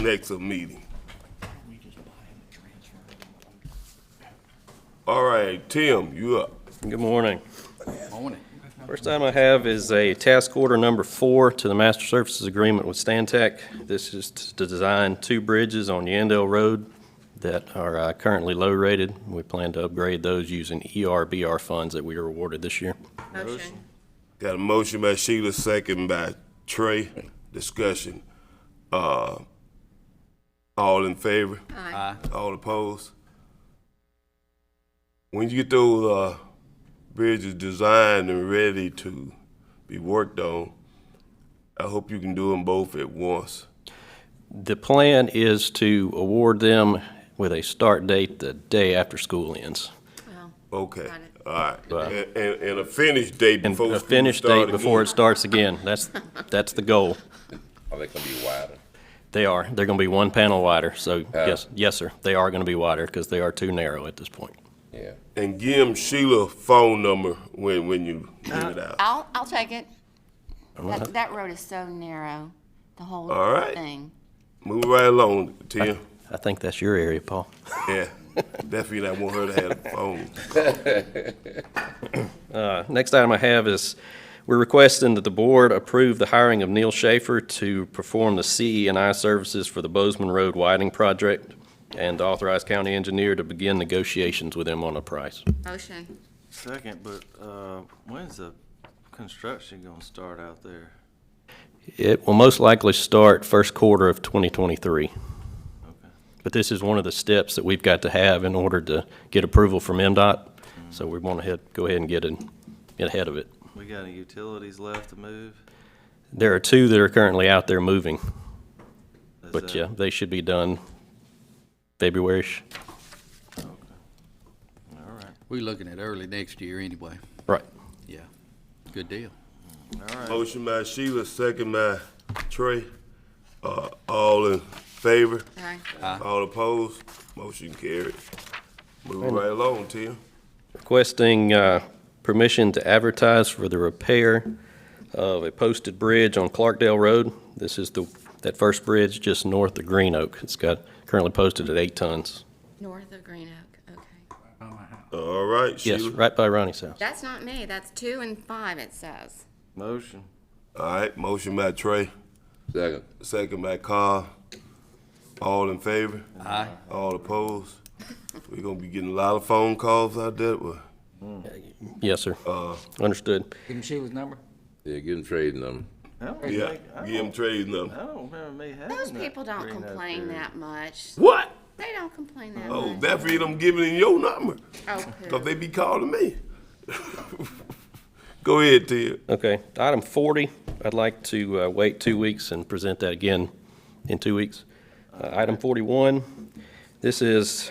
next meeting. All right, Tim, you up. Good morning. Morning. First item I have is a task order number four to the master services agreement with Stantec. This is to design two bridges on Yandell Road that are uh, currently low-rated. We plan to upgrade those using E ERBR funds that we were awarded this year. Motion. Got a motion by Sheila, second by Trey. Discussion. Uh, all in favor? Aye. All opposed? When you get those, uh, bridges designed and ready to be worked on, I hope you can do them both at once. The plan is to award them with a start date the day after school ends. Well, Okay, Got it. all right. Right. And, and, and a finish date And before a school finish start date before it again. starts again. That's, that's the goal. Are they gonna be wider? Uh, They are. They're going to be one panel wider, so yes, yes, sir. They are going to be wider because they are too narrow at this point. Yeah. And give 'em Sheila phone number when, when you give it out. I'll, I'll take it. That, that road is so narrow, the whole All right. thing. Move right along, Tim. I think that's your area, Paul. Yeah, definitely not want her to have a phone. Uh, Next item I have is, we're requesting that the board approve the hiring of Neil Schaefer to perform the ce and I services for the Bozeman Road widening project and authorize county engineer to begin negotiations with him on a price. Motion. Second, but, uh, when's the construction gonna start out there? It will most likely start first quarter of 2023. Okay. But this is one of the steps that we've got to have in order to get approval from MDOT. So we want to go ahead and get in, get ahead of it. We got any utilities left to move? There are two that are currently out there moving, Is but that- yeah, they should be done February-ish. All right, We're looking at early next year anyway. Right. Yeah. Good deal. all right. Motion by Sheila, second by Trey. Uh, all in favor? Aye. All opposed? Motion carried. Move right along, Tim. Requesting uh, permission to advertise for the repair of a posted bridge on Clarkdale Road. This is the, that first bridge just north of Green Oak. It's got, currently posted at eight tons. North of Green Oak, okay. All right, Yes, Sheila. right by Ronnie's house. That's not me, that's two and five, it says. Motion. All right, motion by Trey, Second. second by Carl. All in favor? Aye. All opposed? We're gonna be getting a lot of phone calls out there. uh, Well, Yes, sir. Understood. Give him Sheila's number. Yeah, getting trading them. I don't Yeah, think- I give them don't- Trey's number. I don't remember me having that. Those people don't green up complain there. that much. What? They don't complain that Oh, much. that mean I'm giving him your number, Oh, poo. cause they be calling me. Go ahead, Tim. Okay, item 40, I'd like to uh, wait two weeks and present that again in two weeks. Uh, Item 41, this is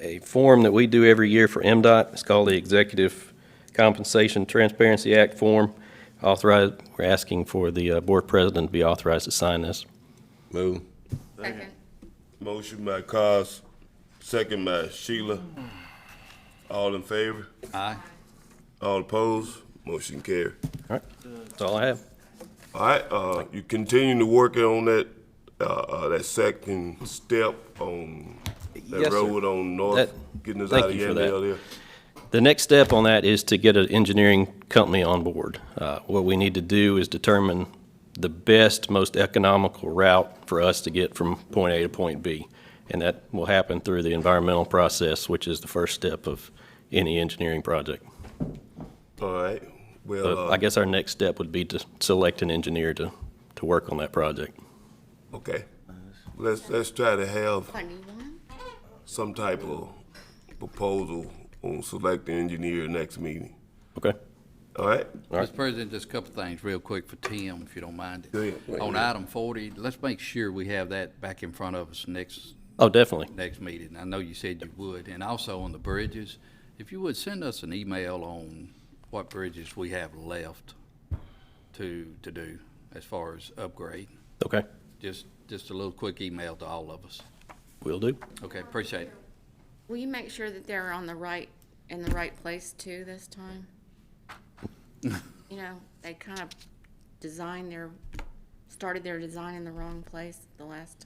a form that we do every year for MDOT. It's called the Executive Compensation Transparency Act form. Authorized, we're asking for the uh, board president to be authorized to sign this. Move. Second. Motion by Cos, second by Sheila. All in favor? Aye. All opposed? Motion carried. All right, that's all I have. All right, uh, you continue to work on that, uh, uh, that second step on Yes, that sir. road on North, That- getting us thank out of you for that. Yandell there. The next step on that is to get an engineering company on board. Uh, What we need to do is determine the best, most economical route for us to get from point A to point B. And that will happen through the environmental process, which is the first step of any engineering project. All right, well, But uh, I guess our next step would be to select an engineer to, to work on that project. uh, okay. Let's, let's try to have What, new one? some type of proposal on selecting engineer next meeting. Okay? All right? Mr. President, just a couple things real quick for Tim, if you don't mind. Go ahead. On item forty, let's make sure we have that back in front of us next, Oh, definitely. next meeting. I know you said you would. And also on the bridges, if you would, send us an email on what bridges we have left to, to do as far as upgrade. Okay, Just, just a little quick email to all of us. will do. Okay, appreciate it. Will you make sure that they're on the right, in the right place too this time? You know, they kind of designed their, started their design in the wrong place the last time.